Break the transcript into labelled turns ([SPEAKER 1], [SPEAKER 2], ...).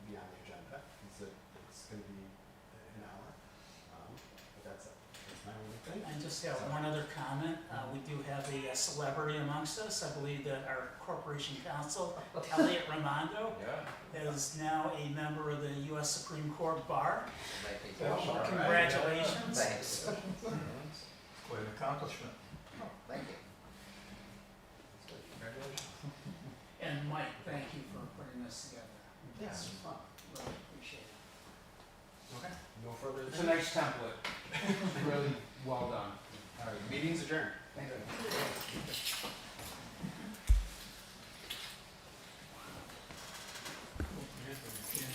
[SPEAKER 1] uh, Um,
[SPEAKER 2] And just have one other comment, uh, we do have a celebrity amongst us, I believe that our corporation counsel, Elliot Ramondo,
[SPEAKER 1] Yeah.
[SPEAKER 2] is now a member of the US Supreme Court Bar.
[SPEAKER 1] Might be
[SPEAKER 3] Well,
[SPEAKER 1] close, all right.
[SPEAKER 2] Congratulations.
[SPEAKER 1] Thanks.
[SPEAKER 3] Quite an accomplishment.
[SPEAKER 1] Oh, Thank you. So, Congratulations.
[SPEAKER 2] And Mike, thank you for putting this together. It's fun, really appreciate it.
[SPEAKER 1] Okay. No further.
[SPEAKER 4] It's a nice template. Really well done.
[SPEAKER 1] All right, meeting's adjourned.
[SPEAKER 4] Thank you.